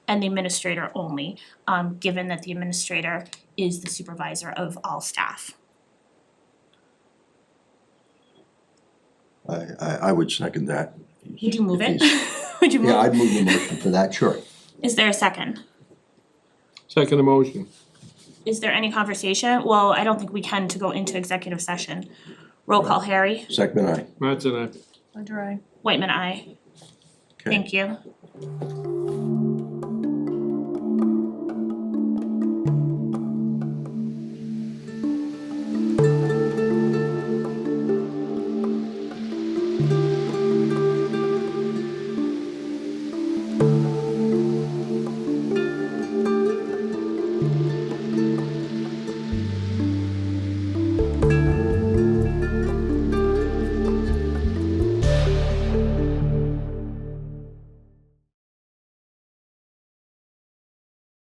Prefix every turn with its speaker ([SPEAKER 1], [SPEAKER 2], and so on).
[SPEAKER 1] and the administrator only, um given that the administrator is the supervisor of all staff.
[SPEAKER 2] I I I would second that.
[SPEAKER 1] Would you move it?
[SPEAKER 2] If he's-
[SPEAKER 1] Would you move?
[SPEAKER 2] Yeah, I'd move the motion for that, sure.
[SPEAKER 1] Is there a second?
[SPEAKER 3] Second emotion.
[SPEAKER 1] Is there any conversation? Well, I don't think we can to go into executive session. Roll call, Harry,
[SPEAKER 2] Second, I.
[SPEAKER 3] Matt's and I.
[SPEAKER 4] Ledger I.
[SPEAKER 1] Whitman, I.
[SPEAKER 2] Okay.
[SPEAKER 1] Thank you.